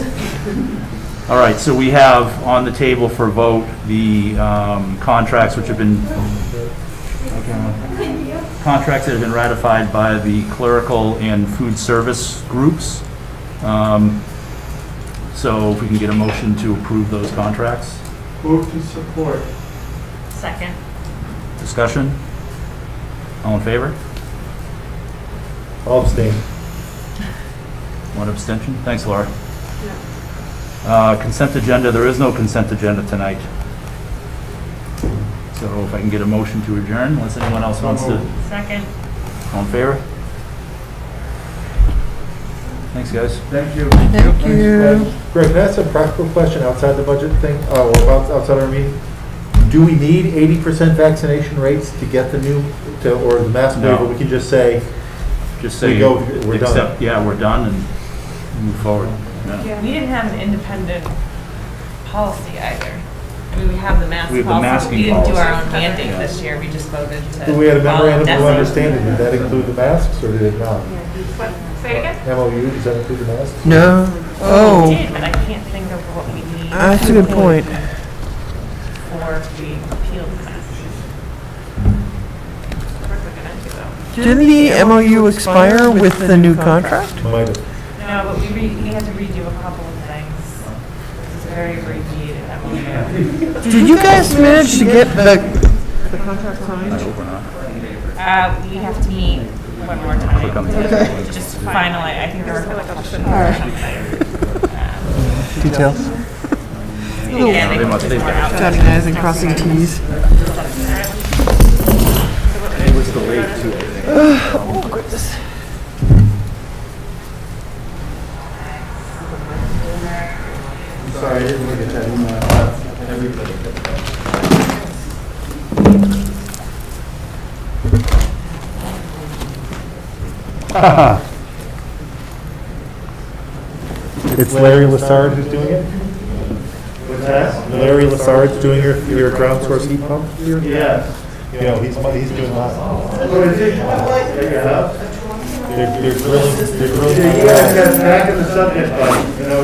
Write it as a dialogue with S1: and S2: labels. S1: All right, so we have on the table for vote the um, contracts which have been, contracts that have been ratified by the clerical and food service groups. Um, So if we can get a motion to approve those contracts,
S2: Move to support.
S3: Second.
S1: discussion? All in favor?
S4: All abstain.
S1: One abstention. Thanks, Laura. Uh, Consent agenda, there is no consent agenda tonight. So if I can get a motion to adjourn, unless anyone else wants to,
S3: Second.
S1: all in favor? Thanks, guys.
S2: Thank you.
S5: Thank you.
S4: Greg, can I ask a practical question outside the budget thing, uh, or about- outside our meeting? Do we need eighty percent vaccination rates to get the new, to, or the mask
S1: No.
S4: waiver? We can just say,
S1: Just
S4: We
S1: say,
S4: go, we're done.
S1: accept, yeah, we're done and move forward. Yeah.
S3: We didn't have an independent policy either. I mean, we have the mask
S1: We have the
S3: policy.
S1: masking
S3: We didn't do our
S1: policy.
S3: own mandate
S1: Yeah.
S3: this year. We just voted to.
S4: do we had a
S3: follow
S4: memorandum of
S3: DESI.
S4: understanding, did that include the masks, or did it not?
S3: Say it again?
S4: MOU, does that include the masks?
S5: No.
S3: We
S5: Oh, Ah,
S3: did, but I can't think of what we need.
S5: that's a good point.
S3: Or if we appealed the mask. Worth looking into though.
S5: Didn't the MOU expire with the new contract?
S4: Might have.
S3: No, but we re, we had to redo a couple of things. It was very abbreviated, I mean.
S5: Did you guys manage to get the,
S1: I hope we're not.
S3: Uh, we have to meet one more time.
S1: Click on the-
S3: To Just finally, I think there were a couple questions. or something. Um,
S5: details?
S3: yeah,
S1: They
S3: they
S1: must-
S3: just
S1: they've
S3: were out.
S5: Dotting i's and crossing t's.
S1: It was delayed too.
S4: Sorry, I didn't look at that It's Larry Lassard who's doing it? What's that? Larry Lassard's doing your, your ground source heat pump?
S2: Yes.
S4: You know, he's, mu- he's doing mine.
S2: What is it? Yeah.
S4: They're, they're drilling, they're
S2: You guys
S4: drilling.
S2: got back in the subject, but